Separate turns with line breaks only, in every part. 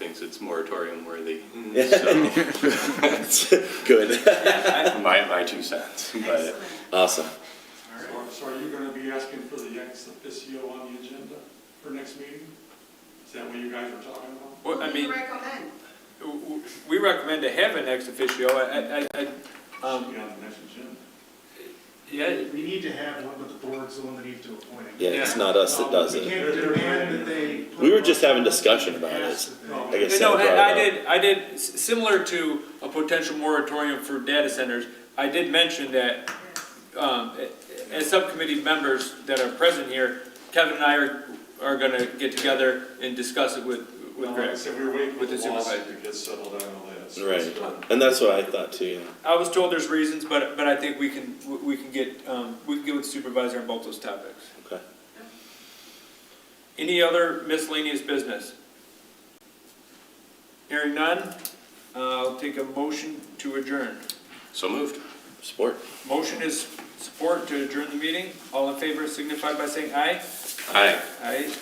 it's moratorium worthy.
Yeah.
So,
Good.
my, my two cents, but
Awesome.
So- So are you going to be asking for the ex officio on the agenda for next meeting? Is that what you guys were talking about?
Well, I
You
mean,
recommend.
w- w- we recommend to have an ex officio, I, I, I,
Should
um,
be on the next agenda.
yeah,
We need to have one, but the board's the one that needs to appoint it.
Yeah, it's not us that does
We
it.
can't demand that they. put
We were just
it on.
having discussion about it. uh,
No,
I guess
No,
Sam brought it
I I
up.
did, I did, s- similar to a potential moratorium for data centers, I did mention that, um, a- as subcommittee members that are present here, Kevin and I are, are gonna get together and discuss it with,
Uh-huh.
with
Like I
Greg.
said, we were waiting for
With the
the lawsuit
supervisor.
to get settled on all that. so it's done.
Right. And that's what I thought too, yeah.
I was told there's reasons, but, but I think we can, we- we can get, um, we can get with supervisor on both those topics.
Okay.
Any other miscellaneous business? Hearing none, uh, I'll take a motion to adjourn.
so moved.
Support.
Motion is support to adjourn the meeting. All in favor signify by saying aye.
Aye.
Aye.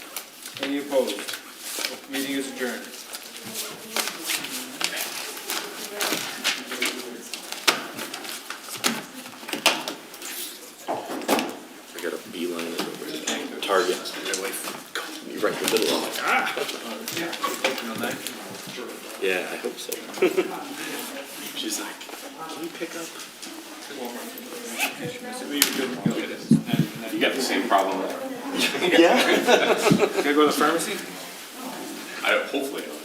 Any opposed? Meeting is adjourned.
I got a beeline it over to Target. My wife called me right in the middle of it. Yeah, I hope so. She's like, can you pick up?
You got the same problem.
Yeah.
Can I go to the pharmacy?
I, hopefully, I don't.